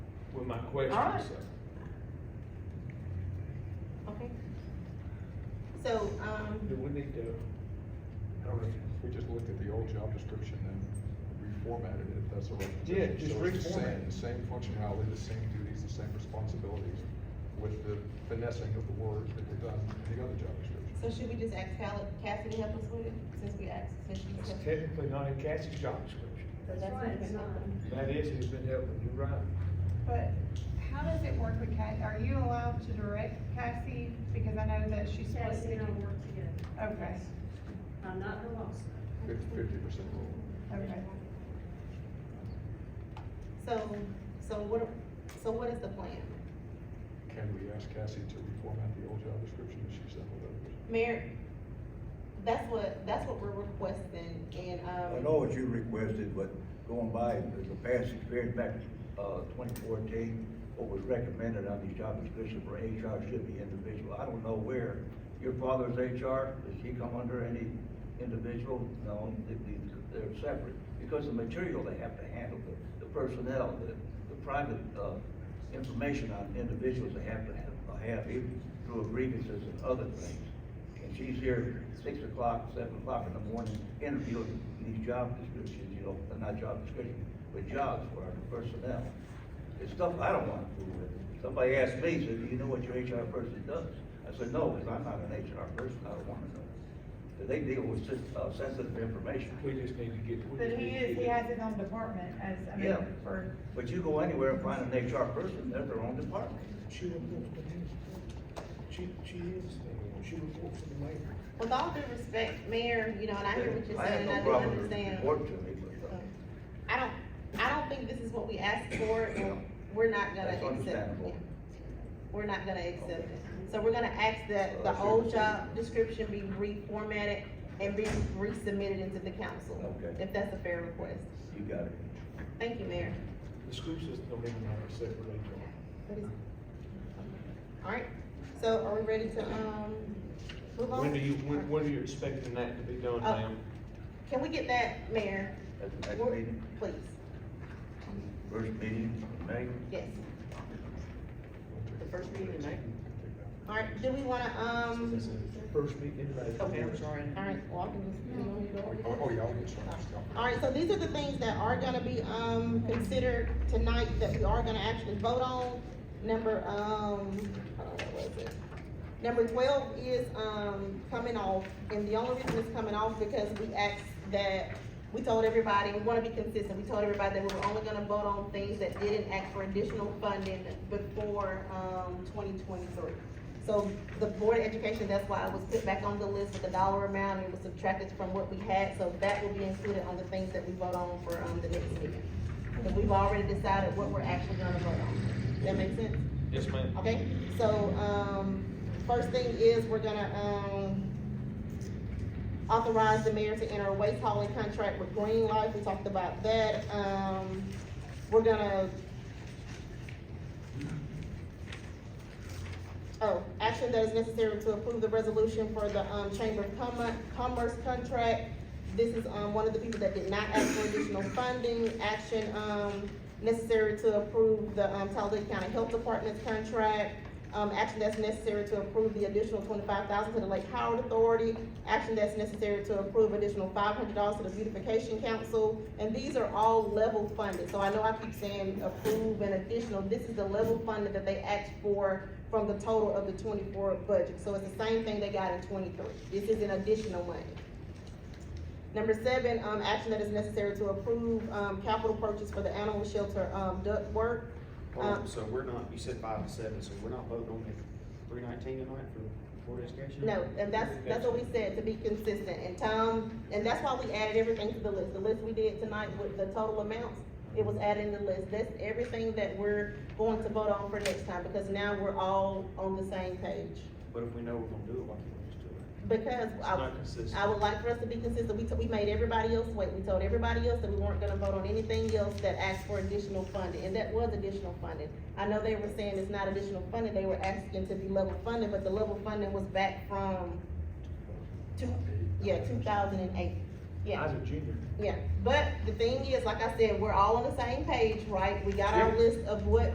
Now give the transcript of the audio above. my question, Alright. so. Okay. So, um, Do we need to, I don't know, We just looked at the old job description and reformatted it, if that's the right Yeah, position. just So it's the reformat same, it. the same functionality, the same duties, the same responsibilities, with the finessing of the words that were done in the other job description. so should we just ask Cal- Cassidy to help us with it, since we asked, since that's she's. technically not in Cassie's job description. That's That's right, it's not. That is, it's been helping, you're right. But how does it work with Cassie? Are you allowed to direct Cassie? Because I know that she splits Cassie the. and I work together. Okay, I'm not her boss. Fifty, fifty percent rule. okay. So, so what, so what is the plan? Can we ask Cassie to reformat the old job description that she sent with others? Mayor, that's what, that's what we're requesting, and, um. I know what you requested, but going by the past experience back, uh, twenty fourteen, what was recommended on these job descriptions for HR should be individual. I don't know where, your father's HR, does he come under any individual? No, they- they- they're separate, because the material they have to handle, the, the personnel, the, the private, uh, information on individuals they have to have, have, even through grievances and other things. And she's here six o'clock, seven o'clock in the morning, interviewing these job descriptions, you know, not job descriptions, but jobs for our personnel. It's stuff I don't want to fool with. Somebody asked me, said, do you know what your HR person does? I said, no, because I'm not an HR person, I don't want to know. But they deal with sis- uh, sensitive information. We just need to get. we But just need he to is, get he it. has his own department as, I mean, Yeah. for, But you go anywhere and find an HR person, they're their own department. She reports to him. She, she is, she reports to the mayor. With all due respect, Mayor, you know, and I hear what you're have saying, and no I do problem with understand. Oh, report to me, but, uh, I don't, I don't think this is what we asked for, and we're not gonna That's accept it. understandable. We're not gonna accept Okay. it. So we're gonna ask that the Well, old sure. job description be reformatted and be resubmitted into the council. Okay. If that's a fair request. you got it. Thank you, Mayor. The school system don't even have a separate HR. What is- Alright, so are we ready to, um, move on? When do you, when, when are you expecting that to be done, Oh. ma'am? Can we get that, Mayor? That's the next We're- meeting, Please, first meeting, in May. yes. The first meeting, right? Take that. Alright, do we wanna, um, First meeting, like. Okay, I'm sorry. alright, well, I can just, you want me to order? Oh, oh, yeah, I'll get started. All right, so these are the things that are gonna be, um, considered tonight that we are gonna actually vote on. Number, um, I don't know, what was it? Number twelve is, um, coming off, and the only reason it's coming off because we asked that, we told everybody, we wanna be consistent, we told everybody that we were only gonna vote on things that didn't ask for additional funding before, um, twenty twenty-three. So the Board of Education, that's why it was put back on the list with the dollar amount, and it was subtracted from what we had, so that will be included on the things that we vote on for, um, the next meeting. Because we've already decided what we're actually gonna vote on. That make sense? Yes, ma'am. Okay, so, um, first thing is, we're gonna, um, authorize the mayor to enter a waste hauling contract with Green Life, we talked about that, um, we're gonna. Oh, action that is necessary to approve the resolution for the, um, Chamber of Commerce, Commerce contract. This is, um, one of the people that did not ask for additional funding, action, um, necessary to approve the, um, Talladega County Health Department's contract, um, action that's necessary to approve the additional twenty-five thousand to the Lake Howard Authority, action that's necessary to approve additional five hundred dollars to the Beautification Council, and these are all level funded, so I know I keep saying approve and additional, this is the level funded that they asked for from the total of the twenty-four budget, so it's the same thing they got in twenty-three, this is an additional money. Number seven, um, action that is necessary to approve, um, capital purchase for the animal shelter, um, duct work, Hold Uh, on, so we're not, you said five to seven, so we're not voting on the three nineteen tonight for Board of Education? No, and that's, that's what we said, to be consistent, and Tom, and that's why we added everything to the list, the list we did tonight with the total amounts, it was added in the list, that's everything that we're going to vote on for next time, because now we're all on the same page. But if we know we're gonna do it, why can't we just do it? Because I, not consistent. I would like for us to be consistent, we, t- we made everybody else wait, we told everybody else that we weren't gonna vote on anything else that asked for additional funding, and that was additional funding. I know they were saying it's not additional funding, they were asking to be level funded, but the level funding was back from two, yeah, two thousand and eight, I yeah, was a junior. yeah. But the thing is, like I said, we're all on the same page, right? We got our list of what